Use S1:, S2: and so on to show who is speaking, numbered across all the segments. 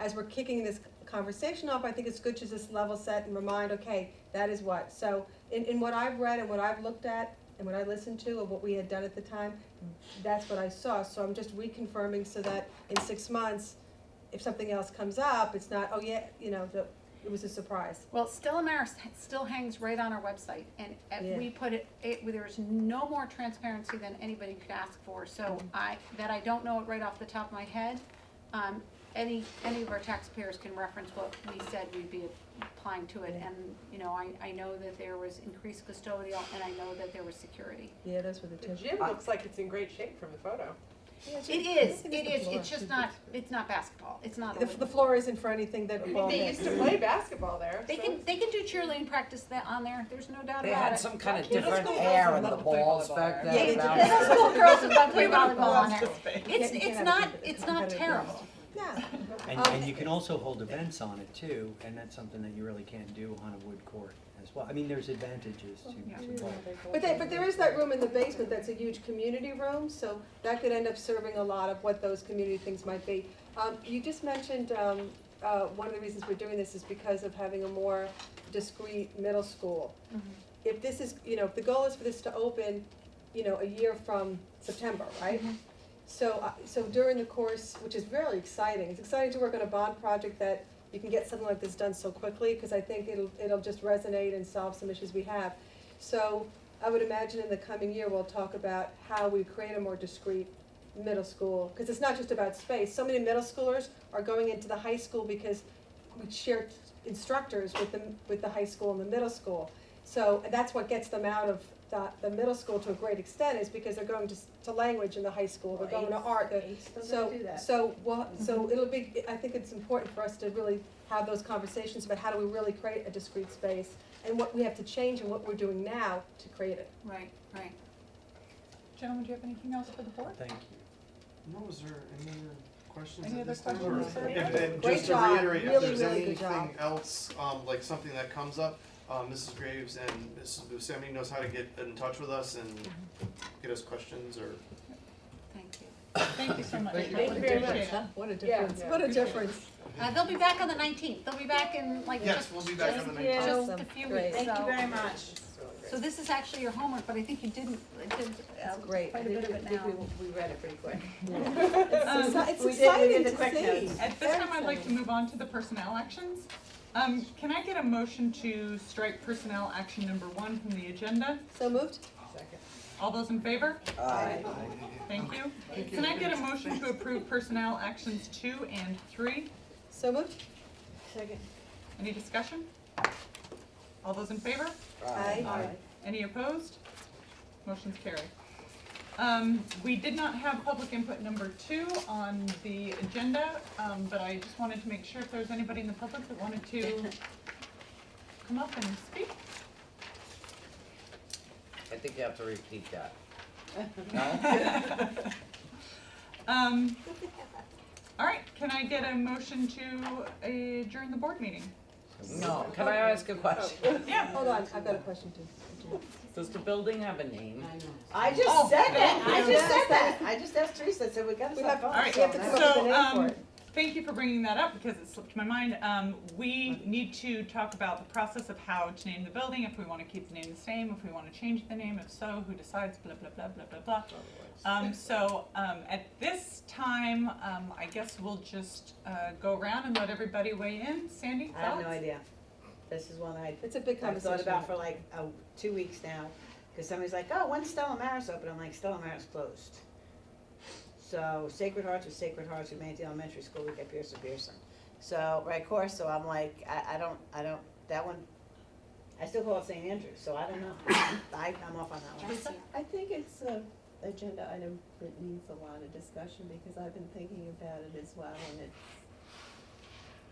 S1: as we're kicking this conversation off, I think it's good to just level set and remind, okay, that is what. So in, in what I've read and what I've looked at and what I listened to and what we had done at the time, that's what I saw. So I'm just reconfirming so that in six months, if something else comes up, it's not, oh yeah, you know, the, it was a surprise.
S2: Well, Stella Maris h- still hangs right on our website, and, and
S1: Yeah.
S2: we put it, it, there is no more transparency than anybody could ask for. So
S1: Mm-hmm.
S2: I, that I don't know it right off the top of my head, um, any, any of our taxpayers can reference what we said we'd be applying to it.
S1: Yeah.
S2: And, you know, I, I know that there was increased custodial, and I know that there was security.
S1: Yeah, those were the
S3: The
S1: two.
S3: gym looks like it's in great shape from the photo.
S1: Yeah, it's
S2: It
S1: just- I
S2: is,
S1: think
S2: it is,
S1: the
S2: it's
S1: floor.
S2: just not, it's not basketball, it's not.
S1: The,
S2: Olympic.
S1: the floor isn't for anything that ball
S3: They
S1: hits.
S3: used to play basketball there.
S2: They
S3: so
S2: can, they can do cheerleading practice that, on there, there's no doubt about it.
S4: They had some kind of
S3: Yeah, let's
S4: different
S3: go
S4: hair
S3: also
S4: in the
S3: let them play
S4: balls
S3: volleyball.
S4: back
S1: Yeah, they
S4: then.
S1: did.
S4: about-
S2: Middle school girls would love to play volleyball on there. It's,
S1: Yeah, you
S2: it's
S1: can
S2: not,
S1: have a
S2: it's not
S1: competitive
S2: terrible.
S1: Yeah.
S5: And, and you can also hold events on it too, and that's something that you really can't do on a wood court as well. I mean, there's advantages
S2: Yeah.
S5: to, to both.
S1: But there, but there is that room in the basement that's a huge community room, so that could end up serving a lot of what those community things might be. Um, you just mentioned, um, uh, one of the reasons we're doing this is because of having a more discrete middle school.
S2: Mhm.
S1: If this is, you know, if the goal is for this to open, you know, a year from September, right?
S2: Mm-hmm.
S1: So, uh, so during the course, which is really exciting, it's exciting to work on a bond project that you can get something like this done so quickly, because I think it'll, it'll just resonate and solve some issues we have. So I would imagine in the coming year, we'll talk about how we create a more discrete middle school, because it's not just about space. So many middle schoolers are going into the high school because we share instructors with the, with the high school and the middle school. So that's what gets them out of the, the middle school to a great extent, is because they're going to, s- to language in the high school, they're going to art, they're- so, so, well, so it'll be, I think it's important for us to really have those conversations about how do we really create a discrete space and what we have to change and what we're doing now to create it.
S2: Right, right. Gentlemen, do you have anything else for the board?
S5: Thank you.
S6: No, is there any other questions?
S2: Any
S6: at
S2: other
S6: this time,
S2: questions,
S6: or-
S2: sir?
S7: And and
S1: Great
S7: just to
S1: job.
S7: reiterate, if
S1: Really,
S7: there's
S1: really good job.
S7: anything else, um, like something that comes up, um, Mrs. Graves and Mrs. Buscemi knows how to get in touch with us and get us questions or
S2: Thank you.
S8: Thank you so much.
S7: Thank you.
S3: Thank you very much.
S8: Appreciate it.
S1: What a
S3: Yeah.
S1: difference, what a difference.
S2: Uh, they'll be back on the nineteenth, they'll be back in like
S7: Yes,
S2: just,
S7: we'll be back on
S2: just-
S7: the 19th.
S2: just a
S1: Awesome.
S2: few
S1: Great.
S2: weeks,
S8: Thank you
S2: so.
S8: very much.
S3: It's really great.
S2: So this is actually your homework, but I think you didn't, it did, uh,
S1: It's great.
S2: quite a bit of it now.
S9: we read it pretty quick.
S1: It's
S8: Um,
S1: exci- it's
S9: we did- we
S1: exciting
S9: did
S1: to
S9: the
S1: see.
S9: quick notes.
S8: At this time, I'd like to move on to the personnel actions. Um, can I get a motion to strike personnel action number one from the agenda?
S1: So moved?
S3: Second.
S8: All those in favor?
S4: Aye.
S8: Thank you. Can I get a motion to approve personnel actions two and three?
S1: So moved?
S9: Second.
S8: Any discussion? All those in favor?
S1: Aye.
S8: Any opposed? Motion's carried. Um, we did not have public input number two on the agenda, um, but I just wanted to make sure if there's anybody in the public that wanted to come up and speak.
S4: I think you have to repeat that. No?
S8: Um, all right, can I get a motion to adjourn the board meeting?
S4: No, can I ask a question?
S8: Yeah.
S1: Hold on, I've got a question too.
S4: Does the building have a name?
S9: I
S8: Oh,
S9: just said that, I
S1: yeah.
S9: just said that, I just asked Teresa, I said, we gotta
S1: We
S9: stop.
S1: have-
S9: going.
S8: All right,
S1: We have to come up with a
S8: so,
S1: name for
S8: um,
S1: it.
S8: thank you for bringing that up because it slipped my mind. Um, we need to talk about the process of how to name the building, if we wanna keep the name the same, if we wanna change the name, if so, who decides, blah, blah, blah, blah, blah, blah. Um, so, um, at this time, um, I guess we'll just, uh, go around and let everybody weigh in. Sandy,
S9: I have no
S8: thoughts?
S9: idea. This is one I,
S1: It's a big
S9: I've
S1: conversation.
S9: thought about for like, uh, two weeks now, cause somebody's like, oh, when's Stella Maris open? I'm like, Stella Maris closed. So Sacred Hearts was Sacred Hearts, we made it to elementary school, we got Pearson Pearson. So, right course, so I'm like, I, I don't, I don't, that one, I still call it St. Andrew, so I don't know. I, I'm off on that one.
S2: Teresa?
S10: I think it's a agenda item that needs a lot of discussion, because I've been thinking about it as well, and it's,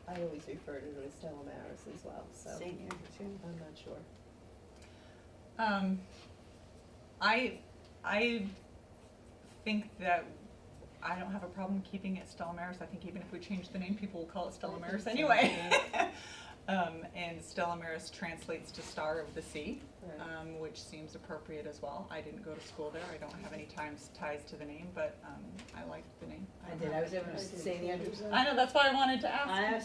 S10: I always refer to it as Stella Maris as well, so
S9: St. Andrew too.
S10: I'm not sure.
S8: Um, I, I think that I don't have a problem keeping it Stella Maris. I think even if we change the name, people will call it Stella Maris anyway. Um, and Stella Maris translates to Star of the Sea,
S10: Right.
S8: um, which seems appropriate as well. I didn't go to school there. I don't have any times ties to the name, but um, I liked the name.
S9: I
S8: don't
S9: did,
S8: know.
S9: I was able to St. Andrews.
S8: I know that's why I wanted to ask.
S9: I